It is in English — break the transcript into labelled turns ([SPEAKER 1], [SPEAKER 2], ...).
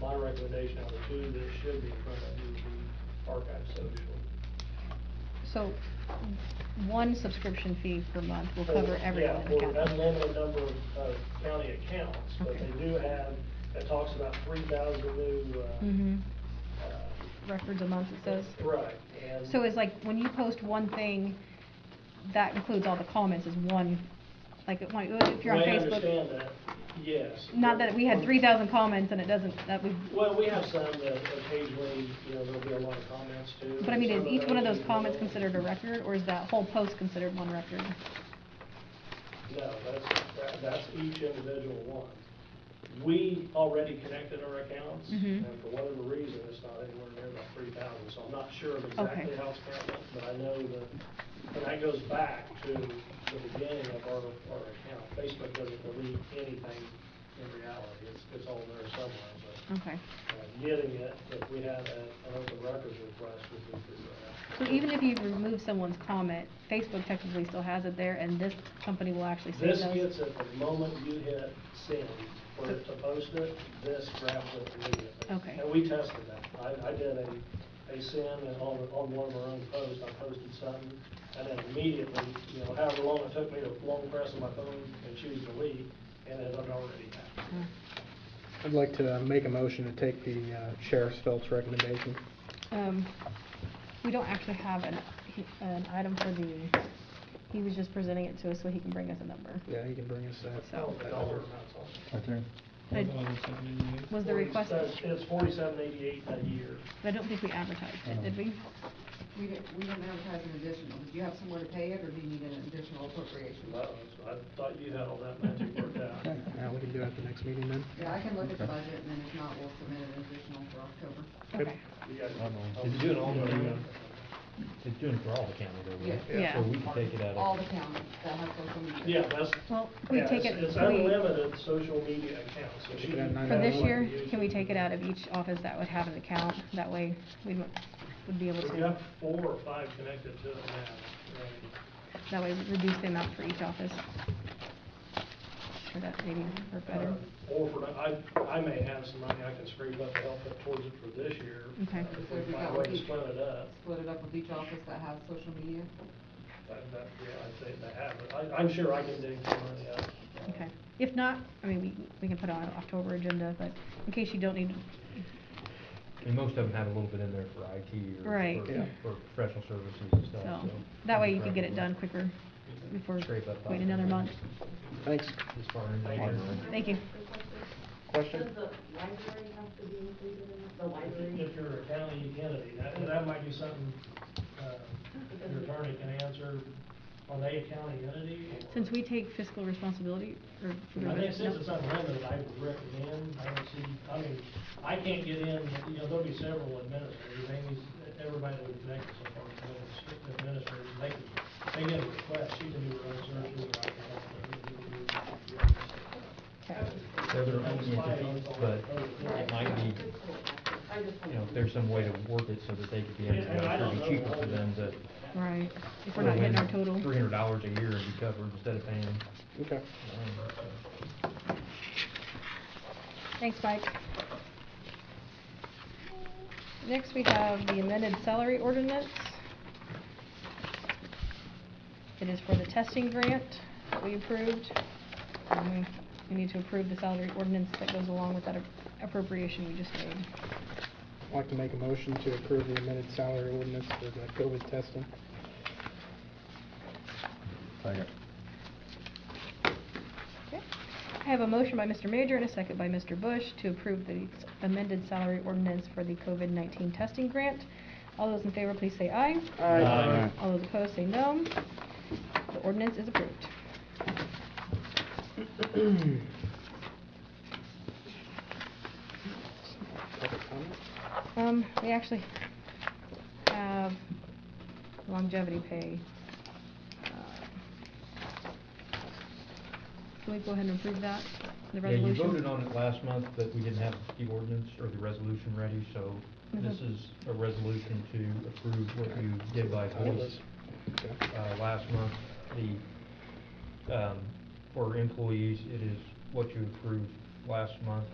[SPEAKER 1] my recommendation out of the two that should be in front of you would be Archive Social.
[SPEAKER 2] So, one subscription fee per month will cover everyone in the
[SPEAKER 1] Yeah, for an
[SPEAKER 2] county.
[SPEAKER 1] unlimited number of, of county accounts, but
[SPEAKER 2] Okay.
[SPEAKER 1] they do have, it talks about three thousand new,
[SPEAKER 2] hmm
[SPEAKER 1] uh, uh,
[SPEAKER 2] records a month, it says.
[SPEAKER 1] Right, and.
[SPEAKER 2] So it's like, when you post one thing, that includes all the comments as one, like, if one- if you're on
[SPEAKER 1] Well, I
[SPEAKER 2] Facebook.
[SPEAKER 1] understand that, yes.
[SPEAKER 2] Not that we had
[SPEAKER 1] Well,
[SPEAKER 2] three thousand comments and it doesn't, that we,
[SPEAKER 1] Well, we have some that occasionally, you know, there'll be a lot of comments too.
[SPEAKER 2] but I mean, is
[SPEAKER 1] Some
[SPEAKER 2] each one of those
[SPEAKER 1] you
[SPEAKER 2] comments
[SPEAKER 1] know,
[SPEAKER 2] considered a record, or is that whole post considered one record?
[SPEAKER 1] No, that's, that- that's each individual one. We already connected our accounts,
[SPEAKER 2] Mhm.
[SPEAKER 1] and for whatever reason, it's not anywhere near about three thousand, so I'm not sure of exactly how it's counted, but I know that, and that goes back to the beginning of our, our account. Facebook doesn't delete anything in reality, it's, it's all there somewhere, but
[SPEAKER 2] Okay.
[SPEAKER 1] uh, getting it, if we had a- an open records request, would be through that.
[SPEAKER 2] So even if you remove someone's comment, Facebook technically still has it there, and this company will actually see
[SPEAKER 1] This
[SPEAKER 2] those?
[SPEAKER 1] gets it the moment you hit send, for it to post it, this grabs it immediately.
[SPEAKER 2] Okay.
[SPEAKER 1] And we tested that. I, I did a, a send and on, on one of our own posts, I posted something, and then immediately, you know, however long it took me to long press on my phone and choose delete, and it had already happened.
[SPEAKER 2] Uh,
[SPEAKER 3] I'd like to uh, make a motion to take the uh, Sheriff Phelps recommendation.
[SPEAKER 2] Um, we don't actually have an, an item for the, he was just presenting it to us so he can bring us a number.
[SPEAKER 3] Yeah, he can bring us that.
[SPEAKER 2] So-
[SPEAKER 1] The dollar amount's all.
[SPEAKER 4] Right there.
[SPEAKER 2] But I- Was the request,
[SPEAKER 1] It's- It's forty-seven eighty-eight a year.
[SPEAKER 2] I don't think we advertised it, did we?
[SPEAKER 1] Um,
[SPEAKER 5] We didn't, we didn't advertise an additional, did you have somewhere to pay it, or do you need an additional appropriation?
[SPEAKER 1] Wow, so I thought you had all that magic worked out.
[SPEAKER 3] Yeah, we can do it at the next meeting then.
[SPEAKER 5] Yeah, I can look at the
[SPEAKER 4] Okay.
[SPEAKER 5] budget, and then if not, we'll submit an additional for October.
[SPEAKER 2] Okay,
[SPEAKER 1] You guys-
[SPEAKER 4] I don't know.
[SPEAKER 1] I'll do it all over again.
[SPEAKER 4] It's doing for all the county though, right?
[SPEAKER 5] Yeah.
[SPEAKER 2] Yeah.
[SPEAKER 4] So we can take it out of.
[SPEAKER 5] All the counties that have social media.
[SPEAKER 1] Yeah, that's,
[SPEAKER 2] well, can
[SPEAKER 1] yeah,
[SPEAKER 2] we take
[SPEAKER 1] it's
[SPEAKER 2] it,
[SPEAKER 1] it's
[SPEAKER 2] can we-
[SPEAKER 1] unlimited social media accounts. so
[SPEAKER 3] Take
[SPEAKER 1] you
[SPEAKER 3] it out
[SPEAKER 1] can
[SPEAKER 3] nine
[SPEAKER 2] for this
[SPEAKER 1] have one
[SPEAKER 2] year,
[SPEAKER 1] to use
[SPEAKER 2] can we take it out of each office that would have an account? That way, we would would be able
[SPEAKER 1] We have
[SPEAKER 2] to,
[SPEAKER 1] four or five connected to it now.
[SPEAKER 2] that way we reduce the amount for each office. Sure, that maybe work
[SPEAKER 1] right?
[SPEAKER 2] better.
[SPEAKER 1] Uh, Or for, I, I may have some money I can scrape up to help put towards it for this year.
[SPEAKER 2] Okay.
[SPEAKER 1] uh, If we find a way to split it up,
[SPEAKER 5] Split it up with each office that has social media.
[SPEAKER 1] that, that, yeah, I'd say that happens. I, I'm sure I can dig some money up. uh,
[SPEAKER 2] Okay. If not, I mean, we, we can put on an October agenda, but in case you don't need,
[SPEAKER 4] And most of them have a little bit in there for IT or.
[SPEAKER 2] Right.
[SPEAKER 4] for-
[SPEAKER 3] Yeah.
[SPEAKER 4] For professional services and stuff,
[SPEAKER 2] so,
[SPEAKER 4] so.
[SPEAKER 2] that way you could get it done quicker before
[SPEAKER 4] Scrape up
[SPEAKER 2] wait another month.
[SPEAKER 3] Thanks.
[SPEAKER 4] As far as.
[SPEAKER 1] Thank you.
[SPEAKER 2] Thank you.
[SPEAKER 3] Question?
[SPEAKER 6] Does the library have to be included in it? The
[SPEAKER 1] If you-
[SPEAKER 6] library?
[SPEAKER 1] If you're a county entity, that, that might be something, uh, your attorney can answer. Are they a county entity? or-
[SPEAKER 2] Since we take fiscal responsibility, or for the
[SPEAKER 1] I mean,
[SPEAKER 2] rest,
[SPEAKER 1] since it's
[SPEAKER 2] no.
[SPEAKER 1] unlimited, I would recommend, I don't see, I mean, I can't get in, you know, there'll be several administrators, Amy's, everybody that we connected so far, is administ- administrators, they can, they get a request, she can do her own search, we can help her.
[SPEAKER 4] They're their own entity, but it might be,
[SPEAKER 6] I just.
[SPEAKER 4] you know, if there's some way to work it so that they could be.
[SPEAKER 1] Yeah, and I don't
[SPEAKER 4] It'd
[SPEAKER 1] know
[SPEAKER 4] be cheaper
[SPEAKER 1] the
[SPEAKER 4] for
[SPEAKER 1] whole-
[SPEAKER 4] them to.
[SPEAKER 2] Right, if we're not hitting our total.
[SPEAKER 4] Three hundred dollars a year and be covered instead of paying.
[SPEAKER 3] Okay.
[SPEAKER 4] um, so.
[SPEAKER 2] Thanks, Mike. Next, we have the amended salary ordinance. It is for the testing grant that we approved. And we- We need to approve the salary ordinance that goes along with that ap- appropriation we just made.
[SPEAKER 3] I'd like to make a motion to approve the amended salary ordinance for the COVID testing.
[SPEAKER 2] Okay. I have a motion by Mr. Major and a second by Mr. Bush to approve the s- amended salary ordinance for the COVID-19 testing grant. All those in favor, please say aye.
[SPEAKER 4] Uh, Aye.
[SPEAKER 2] All those opposed, say no. The ordinance is approved.
[SPEAKER 3] Public comment?
[SPEAKER 2] Um, we actually have longevity pay. Uh, Can we go ahead and approve that, the
[SPEAKER 4] Yeah, you
[SPEAKER 2] resolution?
[SPEAKER 4] voted on it last month, but we didn't have the ordinance or the resolution ready, so this
[SPEAKER 2] Mhm.
[SPEAKER 4] is a resolution to approve what you did by voice,
[SPEAKER 3] Okay.
[SPEAKER 4] uh, last month. The, um, for employees, it is what you approved last month,